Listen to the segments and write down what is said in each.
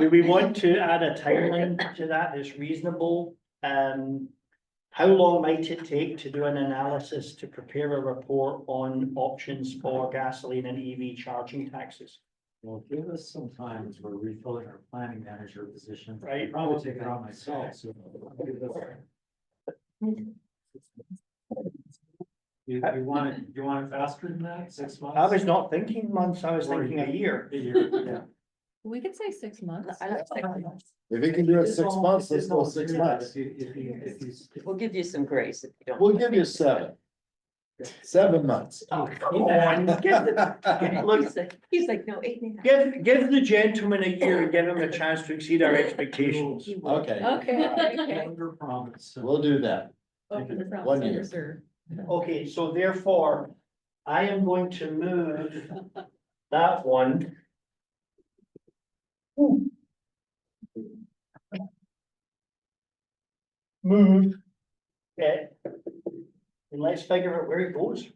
Do we want to add a timeline to that that's reasonable? Um, how long might it take to do an analysis to prepare a report on options for gasoline and EV charging taxes? Well, give us some time as we're refilling our planning manager position. Right. Probably take it on myself, so. give us- You, you want it, you want it faster than that, six months? I was not thinking months, I was thinking a year. A year, yeah. We could say six months. I like six months. If you can do it It's six all- months, it's let's go all six three of us. If months. you, if you, if you. We'll give you some grace if you don't. We'll give you seven. Seven months. Oh, Come on, give the- okay. Look, He's like- He's like, no, eight and a half. give, give the gentleman a year and give him a chance to exceed our expectations. He will. Okay, Okay, okay. Under promise. so- we'll do that. Open the front, One center year. serve. Okay, so therefore, I am going to move that one. Move. Okay. And let's figure out where it goes.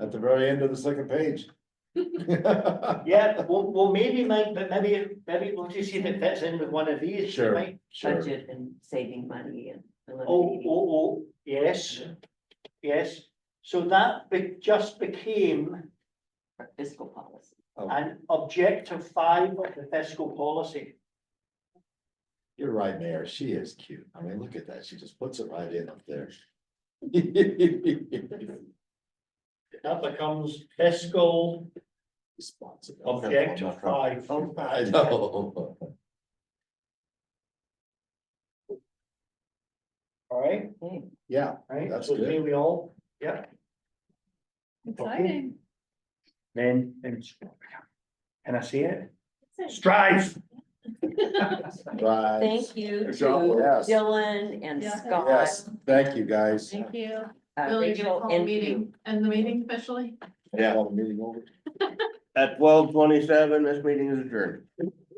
At the very end of the second page. Yeah, well, well, maybe, might, but maybe, it- maybe we'll just see if it fits in with one of these. Sure. right? Sure. Budget and saving money and. Oh, eliminating- oh, oh, yes, yes. So that be- just became Oh, Fiscal policy. an objective five of the fiscal policy. You're right, Mayor. She is cute. I mean, look at that. She just puts it right in up there. That becomes fiscal Responsible. objective five. Oh, I know. All right, Okay. Yeah, right, That's so good. here we all, yeah. Exciting. Then, then. Can I see it? Strive. right. Thank you to oh. Good job, yes. Dylan and Yeah. Scott. Yes, thank you, guys. Thank you. uh, Really good Rachel call and you. meeting, and the meeting officially. Yeah. Meeting over. At twelve twenty-seven, this meeting is adjourned.